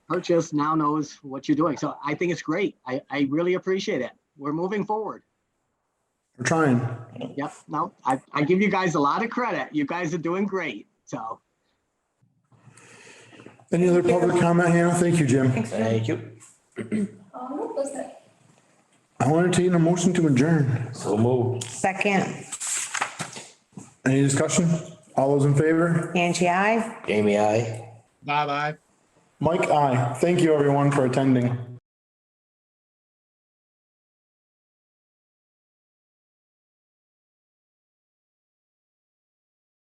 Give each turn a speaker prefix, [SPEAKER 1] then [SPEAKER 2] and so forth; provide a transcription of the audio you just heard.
[SPEAKER 1] Purchase now knows what you're doing. So I think it's great. I, I really appreciate it. We're moving forward.
[SPEAKER 2] We're trying.
[SPEAKER 1] Yep, no, I, I give you guys a lot of credit. You guys are doing great. So,
[SPEAKER 2] Any other public comment, Hannah? Thank you, Jim.
[SPEAKER 3] Thank you.
[SPEAKER 4] Um, what was it?
[SPEAKER 2] I want to entertain a motion to adjourn.
[SPEAKER 3] So moved.
[SPEAKER 5] Second,
[SPEAKER 2] Any discussion? All those in favor?
[SPEAKER 5] Angie, I.
[SPEAKER 3] Jamie, I.
[SPEAKER 6] Bye bye.
[SPEAKER 2] Mike, aye. Thank you, everyone, for attending.